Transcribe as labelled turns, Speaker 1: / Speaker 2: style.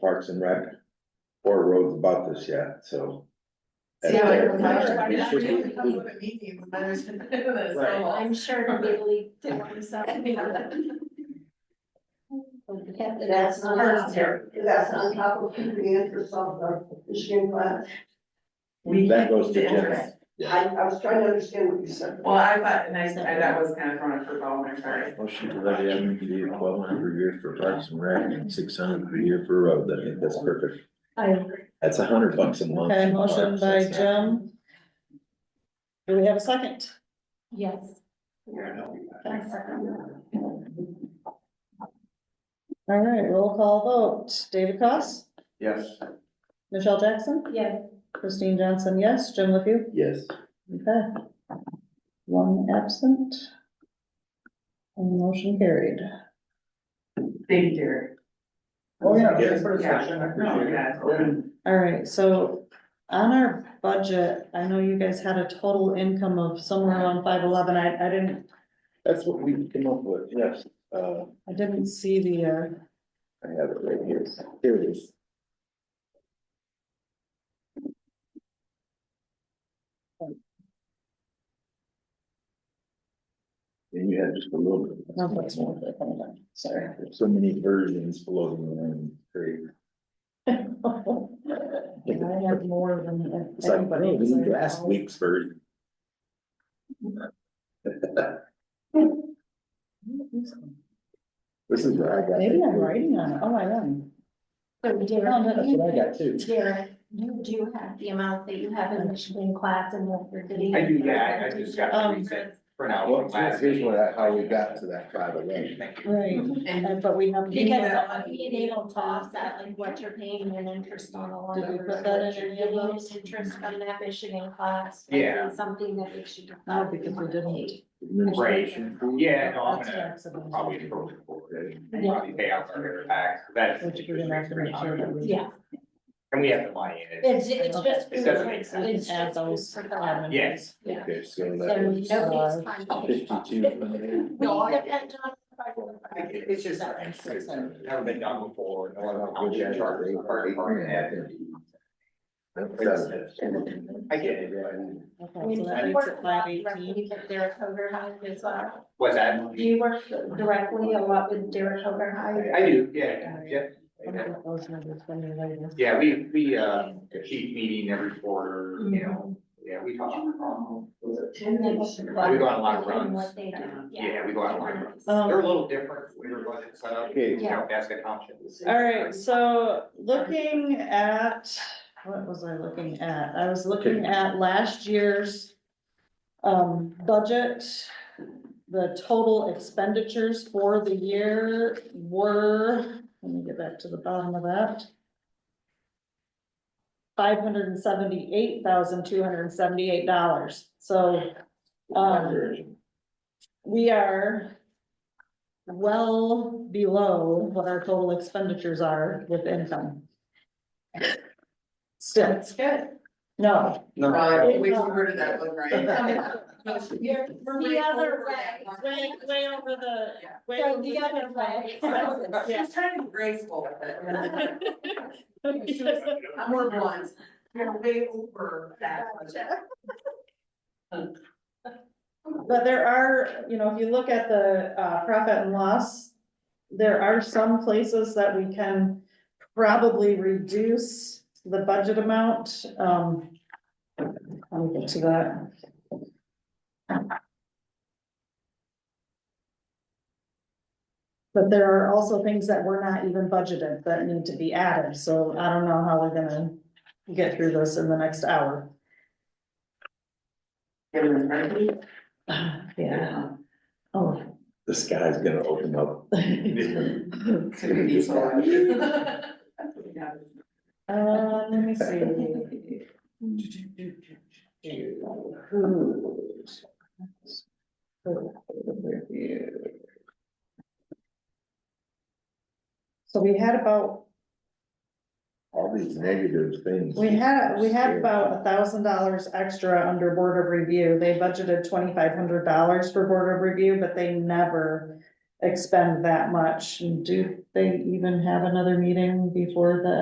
Speaker 1: Parks and Rec or roads about this yet, so.
Speaker 2: Yeah,
Speaker 1: They're-
Speaker 2: I'm not-
Speaker 1: it should be-
Speaker 2: I'm not a meeting, but there's- there's so
Speaker 1: Right.
Speaker 2: long.
Speaker 3: I'm sure Italy did want to sell.
Speaker 4: That's on,
Speaker 2: That's terrible.
Speaker 4: that's on top of the interest of the Michigan class.
Speaker 2: We
Speaker 1: That goes to
Speaker 2: the
Speaker 1: Jim.
Speaker 2: interest.
Speaker 4: I, I was trying to understand what you said.
Speaker 2: Well, I thought, and I, I- that was kind of thrown for ball, I'm sorry.
Speaker 1: Motion to levy MPD twelve hundred per year for Parks and Rec and six hundred per year for roads, I think that's perfect.
Speaker 3: I agree.
Speaker 1: That's a hundred bucks a month.
Speaker 5: Okay,
Speaker 1: in
Speaker 5: motion
Speaker 1: parks,
Speaker 5: by
Speaker 1: that's not-
Speaker 5: Jim. Do we have a second?
Speaker 3: Yes.
Speaker 5: All right, roll call vote. David Cost,
Speaker 1: Yes.
Speaker 5: Michelle Jackson,
Speaker 3: Yes.
Speaker 5: Christine Johnson, yes, Jim LePew,
Speaker 1: Yes.
Speaker 5: okay. One absent. And motion carried.
Speaker 2: Thank you, dear.
Speaker 1: Oh, yeah, thanks
Speaker 2: for the session, No, yeah.
Speaker 5: All right, so on our budget, I know you guys had a total income of somewhere around five eleven. I, I didn't,
Speaker 1: That's what we came up with, yes, uh,
Speaker 5: I didn't see the, uh,
Speaker 1: I have it right here, here it is. And you had just a little bit.
Speaker 5: no, that's not what I found. sorry.
Speaker 1: There's So many versions floating around, great.
Speaker 5: I have more than
Speaker 1: It's like,
Speaker 5: everybody.
Speaker 1: no, this is last week's version. This is what I got.
Speaker 5: Maybe I'm writing on it, oh, I am.
Speaker 3: So
Speaker 5: No, no,
Speaker 3: Derek,
Speaker 1: That's
Speaker 3: you,
Speaker 1: what I got too.
Speaker 3: Derek, you do have the amount that you have in Michigan class and what you're getting.
Speaker 6: I do, yeah, I- I just got
Speaker 5: Um,
Speaker 6: the reset for now.
Speaker 1: Well, here's- here's what, I- how we got to that five eleven.
Speaker 6: Thank you.
Speaker 5: Right,
Speaker 2: And
Speaker 5: and but we have.
Speaker 3: Because
Speaker 2: Yeah.
Speaker 3: the they don't toss that, like what you're paying in interest on a loan.
Speaker 5: Did we
Speaker 3: or
Speaker 5: put that
Speaker 3: what
Speaker 5: in
Speaker 3: you're
Speaker 5: any of
Speaker 3: getting in
Speaker 5: those?
Speaker 3: Interest from that Michigan class. might be
Speaker 6: Yeah.
Speaker 3: Something that they should.
Speaker 5: No, because we didn't.
Speaker 1: Administration fee?
Speaker 6: Yeah, no, I'm
Speaker 5: That's
Speaker 6: gonna
Speaker 5: taxable.
Speaker 6: probably approach it forward and
Speaker 3: Yeah.
Speaker 6: probably pay out our air tax, that's.
Speaker 5: Which we're gonna have to make sure that we.
Speaker 3: Yeah,
Speaker 6: And we have the money in it.
Speaker 3: it's, it's just.
Speaker 6: It doesn't make sense.
Speaker 5: We can add those.
Speaker 3: For that.
Speaker 6: Yes.
Speaker 3: Yeah.
Speaker 1: Okay, so
Speaker 3: So
Speaker 1: that is
Speaker 6: uh,
Speaker 3: nobody's trying to-
Speaker 1: fifty-two. hundred.
Speaker 3: We depend on.
Speaker 6: I- It's just, it's never been done before, no other
Speaker 1: Which
Speaker 6: township
Speaker 1: is our
Speaker 6: charges
Speaker 1: rate,
Speaker 6: the
Speaker 1: our
Speaker 6: fire
Speaker 1: rate
Speaker 6: department had.
Speaker 1: That's
Speaker 6: I get it,
Speaker 5: Okay, so that makes it five eighteen.
Speaker 3: With Derek Overheim as well.
Speaker 6: what's that?
Speaker 3: Do you work directly a lot with Derek Overheim?
Speaker 6: I do, yeah, yeah. yeah. Yeah, we, we, uh, a chief meeting every quarter, you know, yeah, we talk.
Speaker 4: Was it ten
Speaker 3: And then
Speaker 4: minutes?
Speaker 3: what-
Speaker 6: We go on a lot of runs.
Speaker 3: What they do, yeah.
Speaker 6: Yeah, we go on a lot of runs.
Speaker 5: Um,
Speaker 6: They're a little different, we were going to set up,
Speaker 1: Okay.
Speaker 6: you know, basket options.
Speaker 5: All right, so looking at, what was I looking at? I was looking at last year's um, budget. The total expenditures for the year were, let me get back to the bottom of that. Five hundred and seventy-eight thousand, two hundred and seventy-eight dollars, so, um, we are well below what our total expenditures are with income. Still,
Speaker 2: that's good.
Speaker 5: no,
Speaker 2: Uh, we heard of that one, right?
Speaker 3: The other way.
Speaker 5: way, way over the.
Speaker 2: Yeah.
Speaker 5: way
Speaker 3: So
Speaker 5: over
Speaker 3: the other way.
Speaker 5: Yeah.
Speaker 2: She's trying to be graceful with it. I'm more blunt. You're way over that.
Speaker 5: But there are, you know, if you look at the uh profit and loss, there are some places that we can probably reduce the budget amount, um. I'll get to that. But there are also things that were not even budgeted that need to be added, so I don't know how we're gonna get through this in the next hour. Yeah. Oh.
Speaker 1: The sky's gonna open up.
Speaker 2: It's gonna be so loud. Yeah.
Speaker 5: Uh, let me see. So we had about,
Speaker 1: All these negative things.
Speaker 5: we had, we had about a thousand dollars extra under board of review. They budgeted twenty-five hundred dollars for board of review, but they never expend that much, and do they even have another meeting before the